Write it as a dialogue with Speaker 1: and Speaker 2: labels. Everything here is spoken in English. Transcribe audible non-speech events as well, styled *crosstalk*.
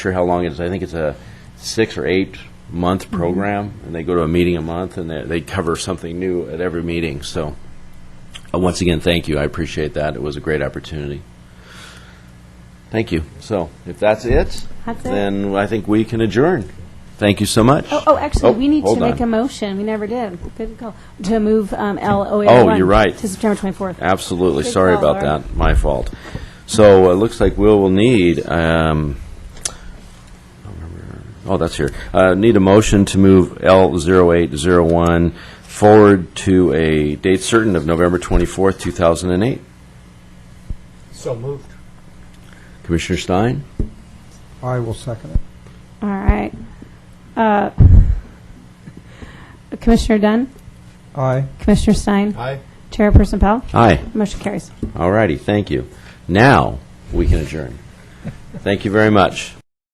Speaker 1: sure how long it is. I think it's a six or eight month
Speaker 2: Mm-hmm.
Speaker 1: program, and they go to a meeting a month, and they, they cover something new at every meeting. So, uh, once again, thank you. I appreciate that. It was a great opportunity. Thank you. So, if that's it,
Speaker 2: That's it.
Speaker 1: then I think we can adjourn. Thank you so much.
Speaker 2: Oh, oh, actually,
Speaker 1: Oh,
Speaker 2: we need to
Speaker 1: hold
Speaker 2: make
Speaker 1: on.
Speaker 2: a motion. We never did. Good call. To move um, LOA1.
Speaker 1: Oh, you're right.
Speaker 2: To September 24th.
Speaker 1: Absolutely.
Speaker 2: Good
Speaker 1: Sorry
Speaker 2: call,
Speaker 1: about
Speaker 2: Laura.
Speaker 1: that. My fault. So uh, it looks like we'll will need, um, oh, that's here. Uh, Need a motion to move L0801 forward to a date certain of November 24th, 2008.
Speaker 3: So moved.
Speaker 1: Commissioner Stein?
Speaker 3: I will second it.
Speaker 2: All right. Uh, *laughs* Commissioner Dunn,
Speaker 3: Aye.
Speaker 2: Commissioner Stein,
Speaker 3: Aye.
Speaker 2: Chairperson Powell,
Speaker 1: Aye.
Speaker 2: motion carries.
Speaker 1: All righty. Thank you. Now, we can adjourn. Thank you very much.